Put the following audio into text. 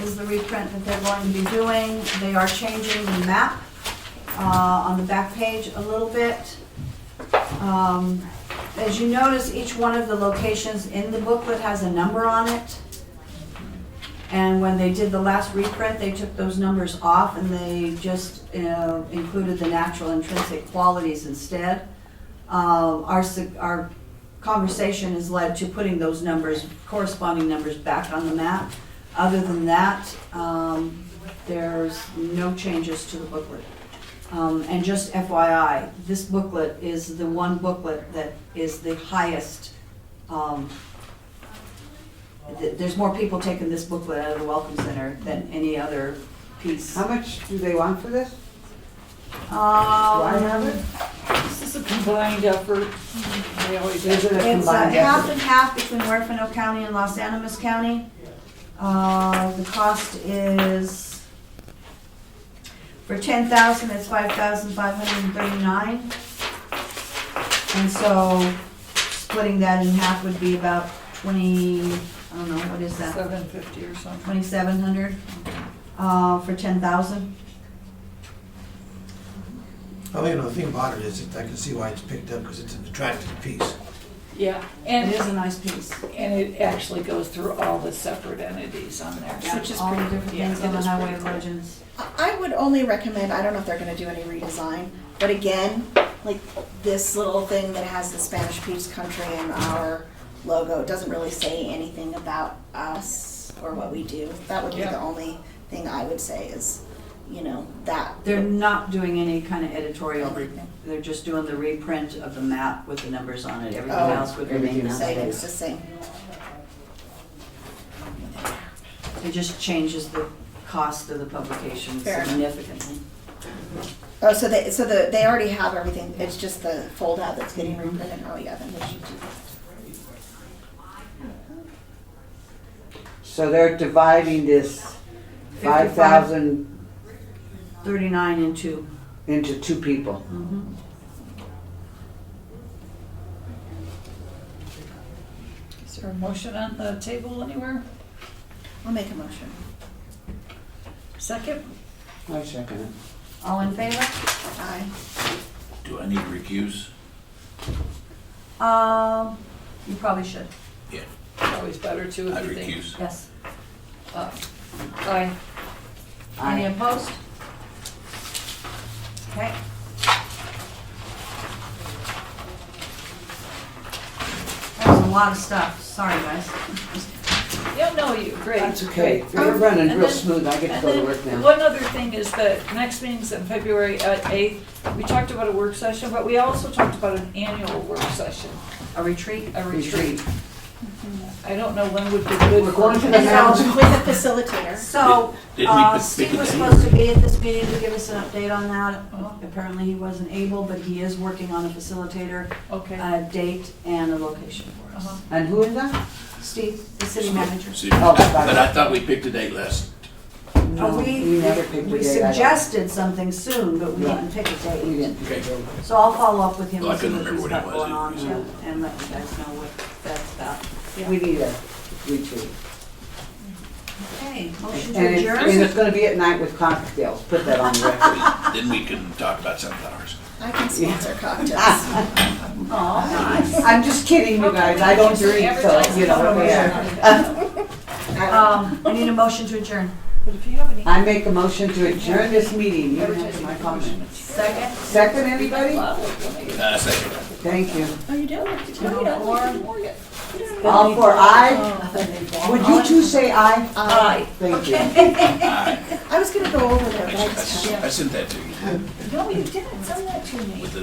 is the reprint that they're going to be doing. They are changing the map uh, on the back page a little bit. Um, As you notice, each one of the locations in the booklet has a number on it. And when they did the last reprint, they took those numbers off and they just uh, included the natural intrinsic qualities instead. Uh, Our, sig- our conversation has led to putting those numbers, corresponding numbers back on the map. Other than that, um, there's no changes to the booklet. Um, and just FYI, this booklet is the one booklet that is the highest, um, th- there's more people taking this booklet out of the Welcome Center than any other piece. How much do they want for this? Do I have Um, it? This is a combined effort. They always Is it a It's uh, combined half effort? and half between Huerfano County and Los Animas County. Uh, The cost is, for ten thousand, it's five thousand five hundred and thirty-nine. And so splitting that in half would be about twenty, I don't know, what is that? Seven fifty or something. Twenty-seven hundred uh, for ten thousand. I mean, Oh, the thing about it is, I can see why it's picked up, because it's an attractive piece. Yeah, It and, is a nice piece. and it actually goes through all the separate entities on there, which is All the pretty, different yeah, things on it the is highway pretty of cool. legends. I would only recommend, I don't know if they're gonna do any redesign, but again, like this little thing that has the Spanish Peach Country and our logo, it doesn't really say anything about us or what we do. That would be Yeah. the only thing I would say is, you know, that. They're not doing any kind of editorial, re- they're just doing the reprint of the map with the numbers on it, everything Oh, else would remain the So same. it's the same. It just changes the cost of the publication Fair enough. significantly. Oh, so they, so the, they already have everything, it's just the fold out that's getting reprinted, oh yeah, then they should do that. So they're dividing this five thousand Thirty-nine and two. into two people. Is there a motion on the table anywhere? I'll make a motion. Second? I second it. All in favor? Aye. Do I need to recuse? Um, you probably should, Always better to, I if you think. recuse. yes. Uh, Aye. Any Aye. opposed? Okay. That was a lot of stuff, sorry guys. Yeah, no, you, great. That's okay. great. We're running And real then- smooth. I get to And go to then, work now. one other thing is that next meeting's in February eighth. We talked about a work session, but we also talked about an annual work session, A retreat? a retreat. Retreat. I don't know when would be good. We're going to for- the mountains. With a facilitator. So, Did- did we uh, put- Steve pick was a date? supposed to be at this meeting to give us an update on that. Apparently, he wasn't able, but he is working on a facilitator, Okay. a date and a location for us. And who is that? Steve, the city manager. See, Oh, sorry. But I thought we picked a date last, Uh, No, We, never picked a we date. I don't- suggested something soon, but we Yeah. didn't pick a We date. didn't pick a date. So I'll follow up with him Well, I and see couldn't what he's remember got what it going on was either, and and let you guys know what that's about. We need a retreat. Okay, motion And to it's, and adjourn? it's gonna be at night with cocktails. Put that on the record. then we can talk about sunflowers. I can sponsor cocktails. Aw, I'm just kidding, you guys. I don't drink, so, you know, yeah. Um, I need a motion to adjourn. But if you have any. I make a motion to adjourn this meeting. You don't have my comment. Second? Second, anybody? Uh, second. Thank you. Oh, you don't? No, you No, don't. or- All for aye? Would you two say aye? Aye. Thank you. Aye. I was gonna go over there, I but I just. I sent that to you. No, you didn't send that to me. With the